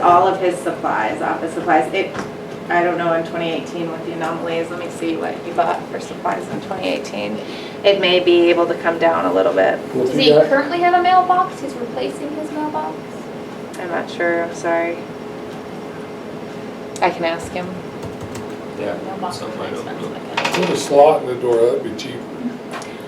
all of his supplies, office supplies. It, I don't know in 2018 with the anomalies, let me see what he bought for supplies in 2018. It may be able to come down a little bit. We'll Does do he that. currently have a mailbox? He's replacing his mailbox? I'm not sure, I'm sorry. I can ask him. Mailbox Something like replacement, that. okay. Put a slot in the door, that'd be cheap.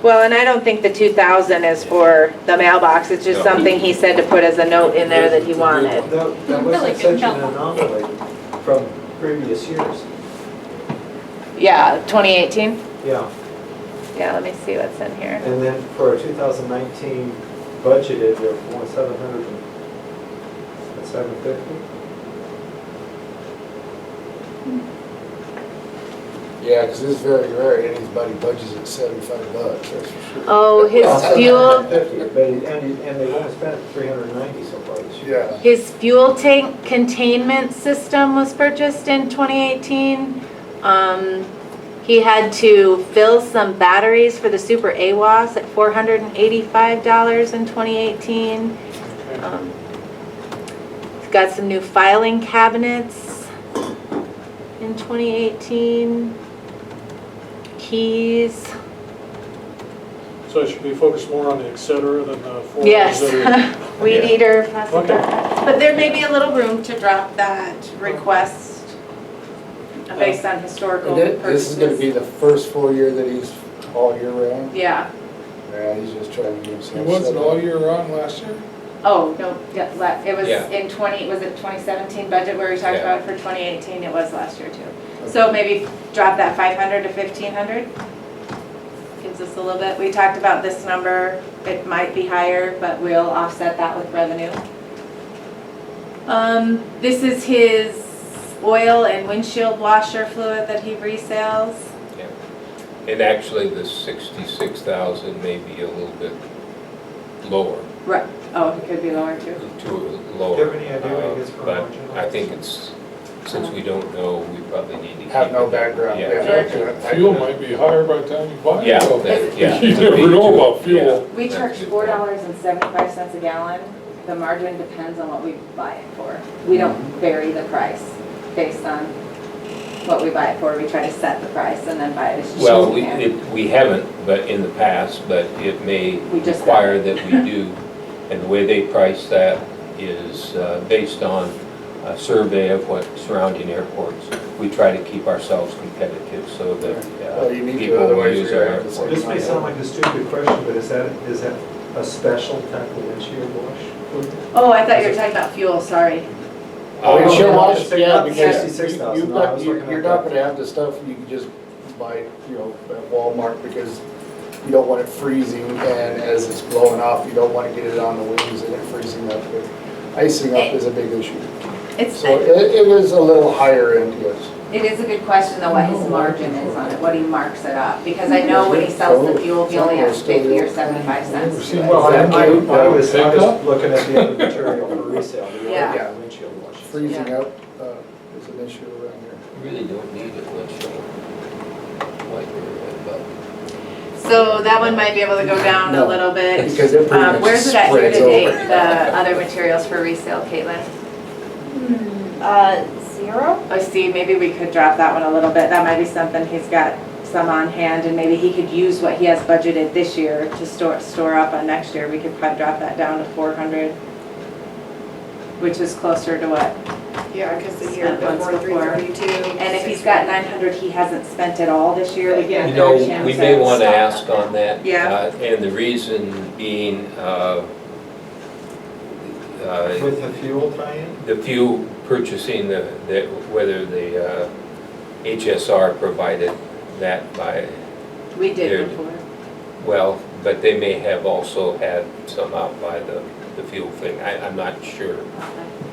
Well, and I don't think the 2,000 is for the mailbox, it's just No. something he said to put as a note in there that he wanted. That, that Really good wasn't such an job. anomaly from previous years. Yeah, 2018? Yeah, Yeah, let me see what's in here. and then for 2019 budgeted, there were 700 and, what, 750? Yeah, because it's very rare anybody budgets at seventy-five bucks, that's for sure. Oh, his fuel, 750, but, it- and, and they've only spent 390 so far this year. Yeah, his fuel tank containment system was purchased in 2018. Um, He had to fill some batteries for the Super AWAS at $485 in 2018. Um, He's got some new filing cabinets in 2018. Keys. So I should be focused more on the et cetera than the four. Yes, weed Yeah. eater, plastic Okay. bags. But there may be a little room to drop that request based on historical And thi- this is gonna be purchases. the first full year that he's all year round. Yeah, Yeah, he's just trying to get himself. It wasn't set all up. year round last year? oh, no, yeah, la- it was Yeah. in 20, was it 2017 budget where we talked Yeah. about it for 2018? It was last year too. So maybe drop that 500 to 1,500? Gives us a little bit, we talked about this number, it might be higher, but we'll offset that with revenue. Um, this is his oil and windshield washer fluid that he resells. And actually, the sixty-six thousand may be a little bit lower, Right. Oh, it could be lower too. too lower. Do you have any idea what it uh, is for a margin? But I think it's, since we don't know, we probably need to keep. Have no it. background, Yeah. yeah. Yeah, Fuel might be higher by the time you buy it. Yeah, though. that- yeah. You never know about fuel. We That's a charge good four point. dollars and seventy-five cents a gallon. The margin depends on what we buy it for. We don't Mm-hmm. vary the price based on what we buy it for. We try to set the price and then buy it as cheap Well, as we we, can. it- we haven't, but in the past, but it may We just require that we do. And the way they price that is uh, based on a survey of what surrounding airports. We try to keep ourselves competitive so that uh, Well, Oh, you need to, people will otherwise use you're our gonna have to airport. This may sound like a stupid question, but is that, is that a special type of windshield wash? Oh, I thought you were talking about fuel, sorry. Oh, Uh, it's your wash, Six- yeah, not because you- 66,000, you've no, I got, was you- looking you're at not that. gonna have the stuff you can just buy, you know, at Walmart because you don't want it freezing and as it's blowing off, you don't wanna get it on the wings and it freezing up. But Icing up is a big issue. It's, So it, it was a little higher end, yes. it is a good question though, what his margin is on it, what he marks it up. Because Mm-hmm. I know when he sells the fuel, he only has fifty or seventy-five cents to Well, it. I, I Thank you. I was, I Pickup? was looking at the other material for resale, the Yeah. old windshield washes. Freezing Yeah. up uh, is an issue around here. You really don't need it unless you're like, but So that one might be able to go down a No, little bit. because it pretty Um, much Where's it at here spreads to date, over. the other materials for resale, Caitlin? Hmm, Uh, zero? Oh, see, maybe we could drop that one a little bit. That might be something he's got some on hand and maybe he could use what he has budgeted this year to store, store up on next year. We could probably drop that down to four hundred, which is closer to what? Yeah, because the Spent year once before, three before. thirty-two. And if he's got nine hundred, he hasn't spent it all this year. We Yeah. get You another know, chance we may at want to stock ask up. on that. Yeah. uh, And the reason being, uh, uh, With the fuel tie-in? the few purchasing, the, the- whether the uh, HSR provided that by, We Here. did before. well, but they may have also had some out by the, the fuel thing. I, I'm not sure.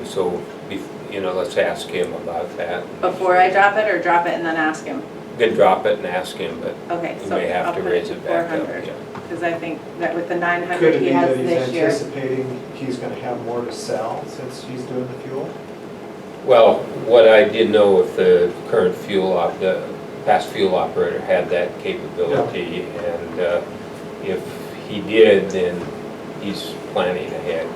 So, bef- you know, let's ask him about that. Before I drop it or drop it and then ask him? Then drop it and ask him, but Okay, we so may I'll have to put raise it to it four back up. hundred. yeah. Because I think that with the nine Could hundred it he be has that he's this year. anticipating he's gonna have more to sell since he's doing the fuel? Well, what I did know if the current fuel op, the past fuel operator had that capability, and uh, if he did, then he's planning ahead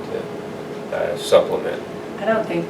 to uh, supplement I don't think